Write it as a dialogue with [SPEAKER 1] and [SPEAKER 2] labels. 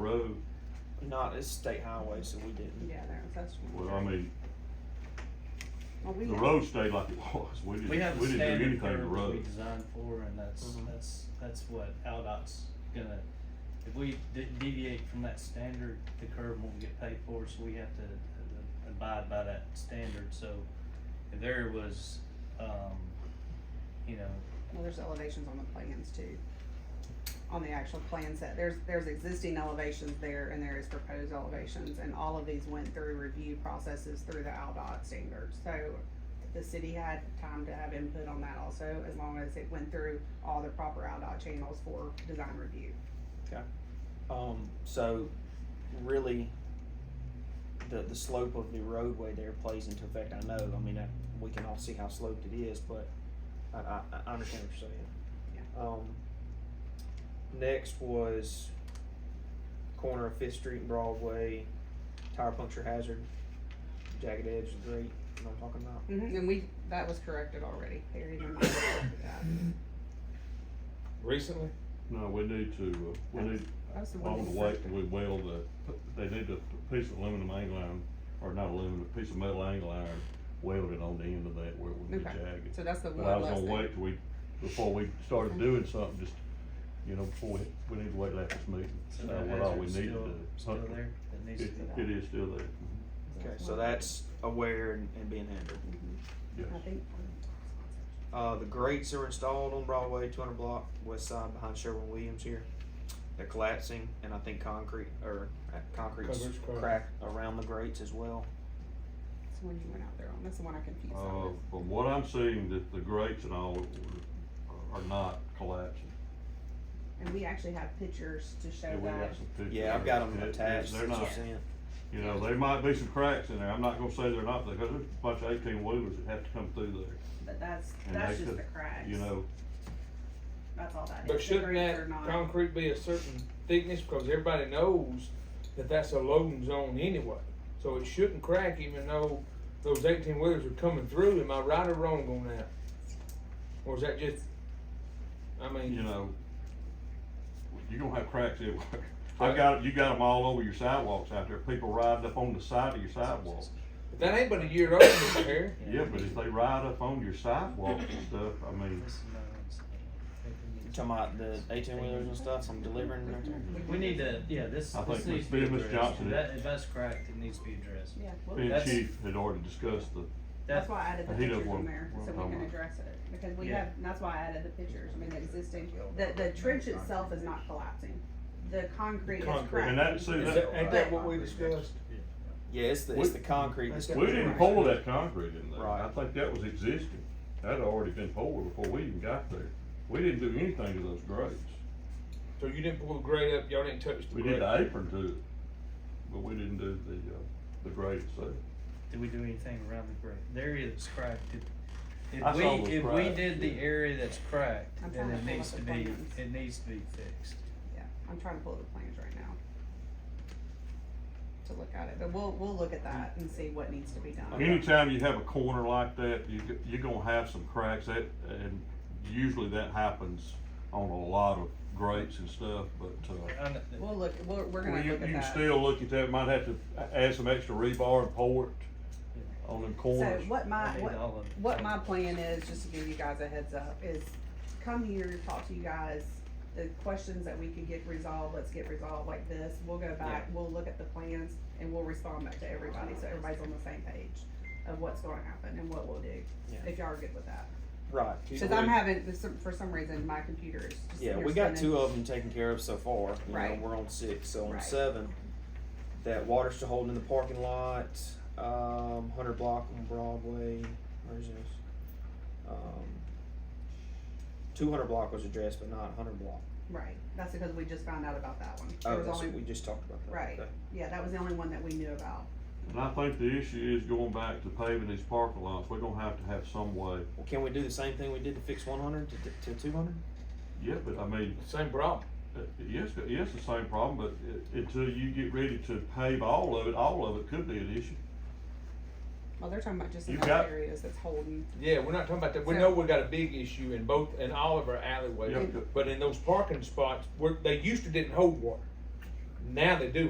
[SPEAKER 1] road,
[SPEAKER 2] Not, it's state highway, so we didn't.
[SPEAKER 3] Yeah, there, that's. one.
[SPEAKER 1] well, I mean,
[SPEAKER 3] Well, we
[SPEAKER 1] the
[SPEAKER 3] have-
[SPEAKER 1] road stayed like it was, we
[SPEAKER 4] We
[SPEAKER 1] didn't,
[SPEAKER 4] have
[SPEAKER 1] we didn't
[SPEAKER 4] a
[SPEAKER 1] do
[SPEAKER 4] standard
[SPEAKER 1] anything to the
[SPEAKER 4] curve we
[SPEAKER 1] road.
[SPEAKER 4] designed for, and that's,
[SPEAKER 2] Mhm.
[SPEAKER 4] that's, that's what Aldot's gonna, if we de- deviate from that standard, the curve won't get paid for, so we have to uh, abide by that standard, so if there was, um, you know,
[SPEAKER 3] Well, there's elevations on the plans too. On the actual plan set, there's, there's existing elevations there and there is proposed elevations and all of these went through review processes through the Aldot standards. So the city had time to have input on that also, as long as it went through all the proper Aldot channels for design review.
[SPEAKER 2] Um, so really, the, the slope of the roadway there plays into effect, I know, I mean, I, we can all see how sloped it is, but I, I, I understand what you're saying. Um, next was corner of Fifth Street and Broadway, tire puncture hazard, jagged edge of the grate, you know what I'm talking about?
[SPEAKER 3] Mhm, And we, that was corrected already, Perry, you remember that?
[SPEAKER 5] Recently?
[SPEAKER 1] No, we need to, uh, we need,
[SPEAKER 3] That was the one
[SPEAKER 1] along the
[SPEAKER 3] we
[SPEAKER 1] way,
[SPEAKER 3] corrected.
[SPEAKER 1] we weld the, they need a piece of aluminum angle iron, or not aluminum, a piece of metal angle iron welded on the end of that where it would be
[SPEAKER 3] Okay.
[SPEAKER 1] jagged.
[SPEAKER 3] So that's the
[SPEAKER 1] But I
[SPEAKER 3] one
[SPEAKER 1] was
[SPEAKER 3] less
[SPEAKER 1] gonna
[SPEAKER 3] thing.
[SPEAKER 1] wait till we, before we started doing something, just, you know, before we, we need to wait till after this meeting.
[SPEAKER 4] so
[SPEAKER 1] Uh,
[SPEAKER 4] that
[SPEAKER 1] what all we
[SPEAKER 4] hazard's
[SPEAKER 1] need to
[SPEAKER 4] still,
[SPEAKER 1] do.
[SPEAKER 4] still there, that needs to
[SPEAKER 1] It,
[SPEAKER 4] be.
[SPEAKER 1] it is still there,
[SPEAKER 2] Okay, so that's aware and, and being handled.
[SPEAKER 3] Mm-hmm.
[SPEAKER 1] yes.
[SPEAKER 3] I think,
[SPEAKER 2] Uh, the grates are installed on Broadway, two hundred block, west side behind Sherwin Williams here. They're collapsing and I think concrete, or uh, concrete's
[SPEAKER 5] Coverage crack.
[SPEAKER 2] cracked around the grates as well.
[SPEAKER 3] that's the one you went out there on, that's the one I confused on
[SPEAKER 1] Uh,
[SPEAKER 3] this.
[SPEAKER 1] from what I'm seeing, that the grates and all are- are not collapsing.
[SPEAKER 3] And we actually have pictures to show
[SPEAKER 1] Yeah, we got
[SPEAKER 3] that.
[SPEAKER 1] some pictures.
[SPEAKER 2] Yeah, I've got them
[SPEAKER 1] It- it-
[SPEAKER 2] attached.
[SPEAKER 1] They're
[SPEAKER 2] that you
[SPEAKER 1] not,
[SPEAKER 2] sent.
[SPEAKER 1] you know, there might be some cracks in there, I'm not gonna say they're not, because there's a bunch of eighteen wheelers that have to come through there,
[SPEAKER 6] But that's,
[SPEAKER 1] And
[SPEAKER 6] that's
[SPEAKER 1] they
[SPEAKER 6] just the
[SPEAKER 1] could,
[SPEAKER 6] cracks.
[SPEAKER 1] you know,
[SPEAKER 6] That's all that is.
[SPEAKER 5] But
[SPEAKER 6] The
[SPEAKER 5] shouldn't
[SPEAKER 6] grades
[SPEAKER 5] that
[SPEAKER 6] are not-
[SPEAKER 5] concrete be a certain thickness, because everybody knows that that's a loading zone anyway? So it shouldn't crack even though those eighteen wheelers are coming through, am I right or wrong on that? Or is that just, I
[SPEAKER 1] you
[SPEAKER 5] mean,
[SPEAKER 1] know, you're gonna have cracks everywhere. I got, you got them all over your sidewalks out there, people riding up on the side of your sidewalk.
[SPEAKER 5] if that ain't but a year old, Mr. Harry.
[SPEAKER 1] Yeah, but if they ride up on your sidewalk and stuff, I mean,
[SPEAKER 4] This is another one, so I think we need
[SPEAKER 2] You
[SPEAKER 4] to-
[SPEAKER 2] talking about the eighteen wheelers and stuff, I'm delivering right there?
[SPEAKER 1] Mm-hmm.
[SPEAKER 4] We need to, yeah, this,
[SPEAKER 1] I
[SPEAKER 4] this
[SPEAKER 1] think
[SPEAKER 4] needs to
[SPEAKER 1] Miss-
[SPEAKER 4] be
[SPEAKER 1] Miss
[SPEAKER 4] addressed,
[SPEAKER 1] Johnson-
[SPEAKER 4] If that, if that's cracked, it needs to be addressed.
[SPEAKER 3] Yeah, well,
[SPEAKER 1] me and
[SPEAKER 4] That's-
[SPEAKER 1] Chief had already discussed the,
[SPEAKER 3] that's why I added the
[SPEAKER 1] He does
[SPEAKER 3] pictures
[SPEAKER 1] one-
[SPEAKER 3] on there,
[SPEAKER 1] one
[SPEAKER 3] so we
[SPEAKER 1] time
[SPEAKER 3] can
[SPEAKER 1] on.
[SPEAKER 3] address it, because we
[SPEAKER 4] Yeah.
[SPEAKER 3] have, and that's why I added the pictures, I mean, the existing, the, the trench itself is not collapsing. The concrete is
[SPEAKER 5] Concrete.
[SPEAKER 1] and
[SPEAKER 3] cracked.
[SPEAKER 1] that, see,
[SPEAKER 5] Is
[SPEAKER 1] that,
[SPEAKER 5] that, ain't that what we discussed?
[SPEAKER 2] Yeah, it's the, it's the concrete that's.
[SPEAKER 1] we didn't pour that concrete in there, I
[SPEAKER 2] Right.
[SPEAKER 1] think that was existing, that had already been poured before we even got there. We didn't do anything to those grades,
[SPEAKER 5] So you didn't pull the grade up, y'all didn't touch the
[SPEAKER 1] we did
[SPEAKER 5] grade?
[SPEAKER 1] the apron to it, but we didn't do the, uh, the grades there.
[SPEAKER 4] Did we do anything around the grate? The area that's cracked, if,
[SPEAKER 1] I
[SPEAKER 4] if
[SPEAKER 1] saw it was
[SPEAKER 4] we, if we
[SPEAKER 1] cracked,
[SPEAKER 4] did the
[SPEAKER 1] yeah.
[SPEAKER 4] area that's cracked,
[SPEAKER 3] I'm
[SPEAKER 4] then
[SPEAKER 3] trying to
[SPEAKER 4] it
[SPEAKER 3] pull up
[SPEAKER 4] needs
[SPEAKER 3] the
[SPEAKER 4] to be,
[SPEAKER 3] plans.
[SPEAKER 4] it needs to be fixed.
[SPEAKER 3] Yeah, I'm trying to pull the plans right now. To look at it, but we'll, we'll look at that and see what needs to be done.
[SPEAKER 1] Anytime you have a corner like that, you, g- you're gonna have some cracks, that, and usually that happens on a lot of grates and stuff, but, uh,
[SPEAKER 4] I kn-
[SPEAKER 3] We'll look, we're,
[SPEAKER 1] Well,
[SPEAKER 3] we're gonna
[SPEAKER 1] you,
[SPEAKER 3] look at
[SPEAKER 1] you can
[SPEAKER 3] that.
[SPEAKER 1] still look at that, might have to add some extra rebar and pour it on them
[SPEAKER 3] So
[SPEAKER 1] corners.
[SPEAKER 3] what my,
[SPEAKER 4] I need
[SPEAKER 3] uh, what,
[SPEAKER 4] all of it.
[SPEAKER 3] what my plan is, just to give you guys a heads up, is come here, talk to you guys. The questions that we can get resolved, let's get resolved like this. We'll go back, we'll look at the plans and we'll respond back to everybody, so everybody's on the same page of what's gonna happen and what we'll do,
[SPEAKER 2] Yeah.
[SPEAKER 3] if y'all are good with that.
[SPEAKER 2] Right,
[SPEAKER 3] Cause I'm having, for some- for some reason, my computer is just.
[SPEAKER 2] yeah,
[SPEAKER 3] here
[SPEAKER 2] we got
[SPEAKER 3] spinning.
[SPEAKER 2] two of them taken care of so far, you know,
[SPEAKER 3] Right.
[SPEAKER 2] we're on six, so on
[SPEAKER 3] Right.
[SPEAKER 2] seven. That water still holding in the parking lot, um, hundred block on Broadway, where's this? Um, two hundred block was addressed, but not hundred block.
[SPEAKER 3] Right, that's because we just found out about that one. There
[SPEAKER 2] Oh,
[SPEAKER 3] was
[SPEAKER 2] that's what
[SPEAKER 3] only-
[SPEAKER 2] we just talked about. that.
[SPEAKER 3] Right.
[SPEAKER 2] Okay.
[SPEAKER 3] Yeah, that was the only one that we knew about.
[SPEAKER 1] And I think the issue is going back to paving these parking lots, we're gonna have to have some way,
[SPEAKER 2] Well, can we do the same thing we did to fix one hundred to, to two hundred?
[SPEAKER 1] yeah, but I mean,
[SPEAKER 5] Same problem.
[SPEAKER 1] uh, yes, yes, the same problem, but i- until you get ready to pave all of it, all of it could be an issue.
[SPEAKER 3] Well, they're talking about just in
[SPEAKER 1] You've
[SPEAKER 3] those
[SPEAKER 1] got-
[SPEAKER 3] areas that's holding.
[SPEAKER 5] Yeah, we're not talking about that. We know we got a big issue in both, in all of our alleyways,
[SPEAKER 1] Yeah.
[SPEAKER 5] but in those parking spots, where, they used to didn't hold water. Now they do